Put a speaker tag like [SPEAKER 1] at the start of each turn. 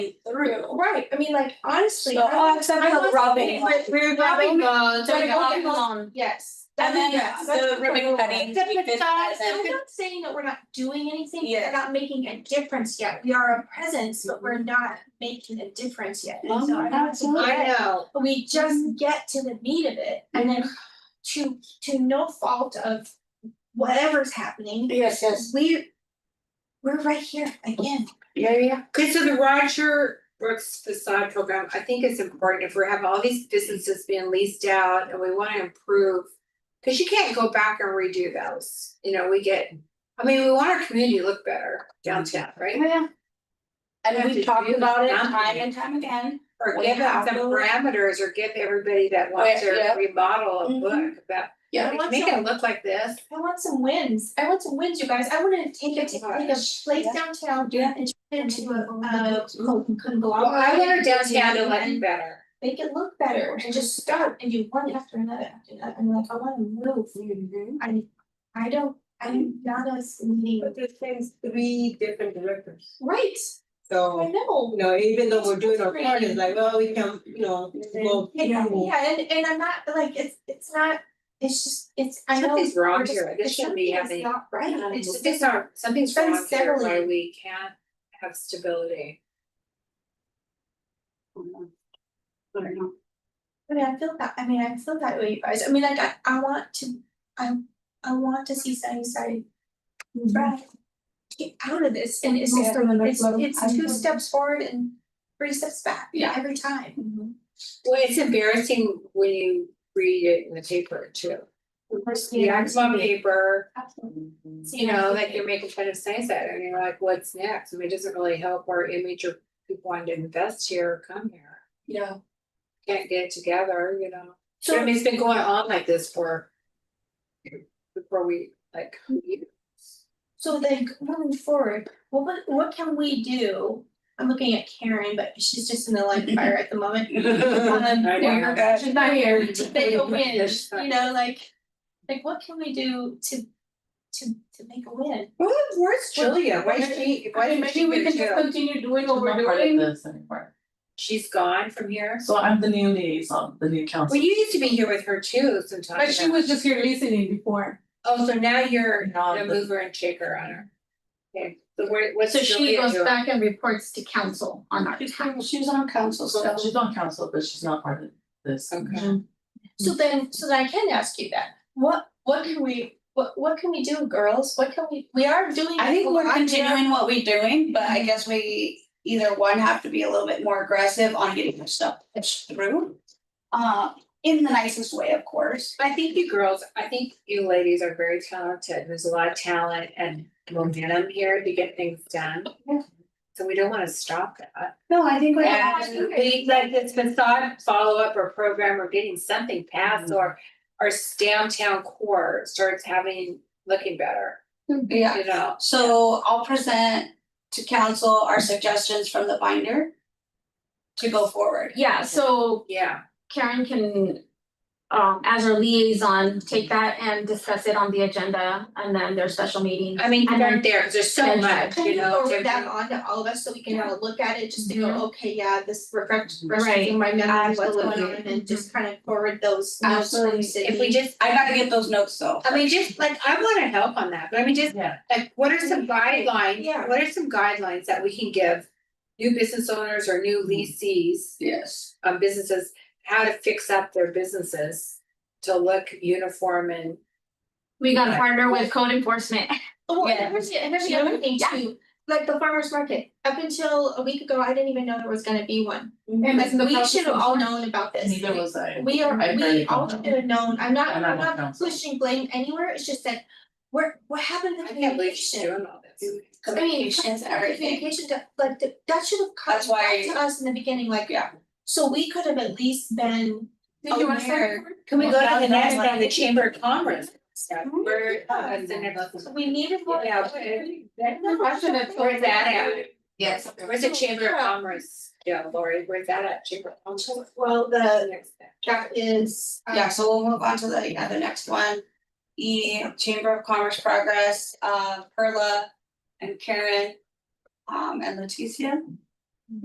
[SPEAKER 1] route, right, I mean, like, honestly.
[SPEAKER 2] So,
[SPEAKER 1] I
[SPEAKER 2] oh,
[SPEAKER 1] was-
[SPEAKER 2] except
[SPEAKER 1] I
[SPEAKER 2] for the
[SPEAKER 1] was
[SPEAKER 2] rubbing
[SPEAKER 1] thinking,
[SPEAKER 2] one.
[SPEAKER 1] like, We're
[SPEAKER 2] Rubbing
[SPEAKER 1] rubbing,
[SPEAKER 2] bone,
[SPEAKER 1] Sorry,
[SPEAKER 2] doing the
[SPEAKER 1] rubbing
[SPEAKER 2] rubbing bone.
[SPEAKER 1] yes.
[SPEAKER 2] And then uh,
[SPEAKER 1] Yes,
[SPEAKER 2] the
[SPEAKER 1] that's
[SPEAKER 2] ribbon
[SPEAKER 1] what we're
[SPEAKER 2] cutting,
[SPEAKER 1] doing. That's
[SPEAKER 2] we
[SPEAKER 1] what
[SPEAKER 2] did
[SPEAKER 1] I'm
[SPEAKER 2] that,
[SPEAKER 1] saying.
[SPEAKER 2] and
[SPEAKER 1] I'm
[SPEAKER 2] then-
[SPEAKER 1] not saying that we're not doing anything,
[SPEAKER 2] Yeah.
[SPEAKER 1] we're not making a difference yet, we are a presence, but we're not making a difference yet, and
[SPEAKER 2] Mm-hmm. Oh
[SPEAKER 1] so
[SPEAKER 2] my
[SPEAKER 1] I don't
[SPEAKER 2] God,
[SPEAKER 1] think
[SPEAKER 2] I
[SPEAKER 1] that-
[SPEAKER 2] know.
[SPEAKER 1] But we
[SPEAKER 2] Mm-hmm.
[SPEAKER 1] just get to the meat of it, and then to to no fault of whatever's happening,
[SPEAKER 3] Yes, yes,
[SPEAKER 1] we. We're right here again,
[SPEAKER 3] yeah, yeah,
[SPEAKER 4] Okay, so the Roger Brooks facade program, I think it's important if we're having all these businesses being leased out and we wanna improve. Cause you can't go back and redo those, you know, we get, I mean, we want our community to look better downtown, right?
[SPEAKER 3] yeah.
[SPEAKER 2] And
[SPEAKER 4] have
[SPEAKER 2] we've
[SPEAKER 4] to
[SPEAKER 2] talked
[SPEAKER 4] do
[SPEAKER 2] about it
[SPEAKER 4] something.
[SPEAKER 2] time and time again.
[SPEAKER 4] Or
[SPEAKER 2] We
[SPEAKER 4] give
[SPEAKER 2] have
[SPEAKER 4] out some
[SPEAKER 2] to-
[SPEAKER 4] parameters or give everybody that wants
[SPEAKER 2] Wait, yeah.
[SPEAKER 4] to remodel a
[SPEAKER 1] Mhm.
[SPEAKER 4] book about,
[SPEAKER 1] Yeah.
[SPEAKER 4] like, make it look like this.
[SPEAKER 1] I want some wins, I want some wins, you guys, I wanna take a take a
[SPEAKER 4] Oh Gosh.
[SPEAKER 1] place
[SPEAKER 2] Yeah.
[SPEAKER 1] downtown
[SPEAKER 2] Yeah.
[SPEAKER 1] and turn it into a uh
[SPEAKER 4] Well, I want our
[SPEAKER 1] conglomerate.
[SPEAKER 4] downtown to
[SPEAKER 1] and
[SPEAKER 4] look better.
[SPEAKER 1] Make it look better and just start and do one after another after another, I'm like, I wanna move,
[SPEAKER 4] Mm-hmm.
[SPEAKER 1] I I don't, I'm not a meeting,
[SPEAKER 5] But there's things, three different directors,
[SPEAKER 1] right, I
[SPEAKER 5] so,
[SPEAKER 1] know.
[SPEAKER 5] you know, even though we're doing our part, it's like, well, we can, you know, go.
[SPEAKER 1] Yeah, yeah, and and I'm not, like, it's it's not, it's just, it's, I know.
[SPEAKER 4] Something's wrong
[SPEAKER 1] we're just-
[SPEAKER 4] here. This
[SPEAKER 1] it's
[SPEAKER 4] shouldn't be
[SPEAKER 1] something that's
[SPEAKER 4] happening.
[SPEAKER 1] Not right, it's just,
[SPEAKER 4] Something's not, something's
[SPEAKER 1] Some
[SPEAKER 4] wrong here why
[SPEAKER 1] stability.
[SPEAKER 4] we can't have stability.
[SPEAKER 1] I mean, I feel that, I mean, I feel that way, you guys, I mean, like, I I want to, I I want to see Sunnyside thrive. Get out of this, and it's just, it's it's two steps forward and three steps back,
[SPEAKER 2] Yeah.
[SPEAKER 1] every time.
[SPEAKER 2] Mm-hmm.
[SPEAKER 4] Well, it's embarrassing when you read it in the paper too. The act on paper,
[SPEAKER 1] Absolutely.
[SPEAKER 4] you know, like you're making fun of Sunnyside and you're like, what's next? I mean, it doesn't really help our image or people wanting to invest here or come here.
[SPEAKER 2] Yeah.
[SPEAKER 4] Can't get it together, you know? So I
[SPEAKER 1] So,
[SPEAKER 4] mean, it's been going on like this for before we like,
[SPEAKER 1] so like, moving forward, what would- what can we do? I'm looking at Karen, but she's just in the line fire at the moment. Um,
[SPEAKER 4] I know.
[SPEAKER 1] yeah, she's not here, to make a win,
[SPEAKER 4] Yeah, she's not
[SPEAKER 1] you know, like, like what can we do to, to, to make a win?
[SPEAKER 5] Well, where's Julia, why
[SPEAKER 4] did
[SPEAKER 5] is she,
[SPEAKER 4] why did she get jailed?
[SPEAKER 2] continue doing
[SPEAKER 6] I'm not part of this anymore.
[SPEAKER 4] She's gone from here.
[SPEAKER 6] So I'm the new liaison, the new council.
[SPEAKER 4] Well, you used to be here with her too sometimes.
[SPEAKER 2] just here listening before.
[SPEAKER 4] Oh, so now you're
[SPEAKER 6] Now
[SPEAKER 4] a
[SPEAKER 6] the-
[SPEAKER 4] mover and shaker on her. Okay, so where, what's
[SPEAKER 7] So she
[SPEAKER 4] Julia
[SPEAKER 7] goes
[SPEAKER 4] doing?
[SPEAKER 7] back and reports to council on our
[SPEAKER 2] She's
[SPEAKER 7] tax.
[SPEAKER 2] she's on council
[SPEAKER 6] So
[SPEAKER 2] still.
[SPEAKER 6] she's on council, but she's not part of this.
[SPEAKER 4] Okay.
[SPEAKER 1] So then, so then I can ask you that, what, what can we, what, what can we do, girls, what can we, we are doing.
[SPEAKER 2] I think
[SPEAKER 1] a
[SPEAKER 2] we're
[SPEAKER 1] lot here.
[SPEAKER 2] continuing what we're doing, but I guess we either one have to be a little bit more aggressive on getting this stuff pushed through. Uh, in the nicest way, of course.
[SPEAKER 4] I think you girls, I think you ladies are very talented. There's a lot of talent and momentum here to get things done. So we don't wanna stop that.
[SPEAKER 2] No, I think we have.
[SPEAKER 4] And we, like this facade follow-up or program, we're getting something passed or our downtown core starts having, looking better,
[SPEAKER 2] Yeah.
[SPEAKER 4] you know?
[SPEAKER 2] So I'll present to council our suggestions from the binder to go forward.
[SPEAKER 7] Yeah, so
[SPEAKER 4] Yeah.
[SPEAKER 7] Karen can, um, as our liaison, take that and discuss it on the agenda and then their special meeting.
[SPEAKER 4] I mean, you
[SPEAKER 7] And then-
[SPEAKER 4] weren't there, 'cause there's so
[SPEAKER 7] and-
[SPEAKER 4] much,
[SPEAKER 1] Can
[SPEAKER 4] you
[SPEAKER 1] you Mm-hmm.
[SPEAKER 4] know.
[SPEAKER 1] forward
[SPEAKER 4] different-
[SPEAKER 1] that on to all of us so we can have a look at it, just to
[SPEAKER 7] Mhm.
[SPEAKER 1] go, okay, yeah, this refresh,
[SPEAKER 6] Mhm.
[SPEAKER 1] refreshing my memory, what's going on,
[SPEAKER 2] Absolutely.
[SPEAKER 1] and just kind of forward those out to
[SPEAKER 2] Absolutely.
[SPEAKER 1] the
[SPEAKER 2] If
[SPEAKER 1] city.
[SPEAKER 4] If we just,
[SPEAKER 2] I gotta get those notes though.
[SPEAKER 4] I mean, just like, I wanna help on that, but I mean, just
[SPEAKER 6] Yeah.
[SPEAKER 4] like, what are some guidelines,
[SPEAKER 1] Yeah.
[SPEAKER 4] what are some guidelines that we can give? New business owners or new leasees,
[SPEAKER 2] Yes.
[SPEAKER 4] um, businesses, how to fix up their businesses to look uniform and.
[SPEAKER 7] We gotta partner with code enforcement.
[SPEAKER 1] Oh,
[SPEAKER 2] Yeah.
[SPEAKER 1] and here's the, and here's the other thing too, like the farmer's market, up until a week ago, I didn't even know there was gonna be one.
[SPEAKER 7] And
[SPEAKER 1] Like, we should have all known about this.
[SPEAKER 6] Neither was I.
[SPEAKER 1] We are,
[SPEAKER 6] I
[SPEAKER 1] we
[SPEAKER 6] barely
[SPEAKER 1] all should
[SPEAKER 6] don't know.
[SPEAKER 1] have known, I'm not,
[SPEAKER 6] And I'm
[SPEAKER 1] I'm
[SPEAKER 6] on
[SPEAKER 1] not
[SPEAKER 6] council.
[SPEAKER 1] pushing blame anywhere, it's just that, we're, what happened to
[SPEAKER 4] I can't believe she's
[SPEAKER 1] communication?
[SPEAKER 4] doing all this.
[SPEAKER 2] Communications and everything.
[SPEAKER 1] Communication, that- like, that- that should have come
[SPEAKER 2] That's why-
[SPEAKER 1] back to us in the beginning, like.
[SPEAKER 2] Yeah.
[SPEAKER 1] So we could have at least been
[SPEAKER 2] Did you wanna start?
[SPEAKER 1] aware,
[SPEAKER 4] Can we go to the
[SPEAKER 2] Well,
[SPEAKER 4] next
[SPEAKER 2] that's
[SPEAKER 4] one, the
[SPEAKER 2] like-
[SPEAKER 4] Chamber of Commerce? Yeah,
[SPEAKER 1] Mhm.
[SPEAKER 4] we're, uh,
[SPEAKER 1] Yeah.
[SPEAKER 4] that's the next one.
[SPEAKER 1] we needed more.
[SPEAKER 4] Yeah. Where's that at?
[SPEAKER 2] Yes.
[SPEAKER 4] Where's the Chamber of Commerce? Yeah, Lori, where's that at? Chamber of Commerce?
[SPEAKER 1] Well, the,
[SPEAKER 4] Next step.
[SPEAKER 1] that is. um,
[SPEAKER 2] Yeah, so we'll move on to the, yeah, the next one. E, Chamber of Commerce Progress, uh, Perla and Karen, um, and Leticia.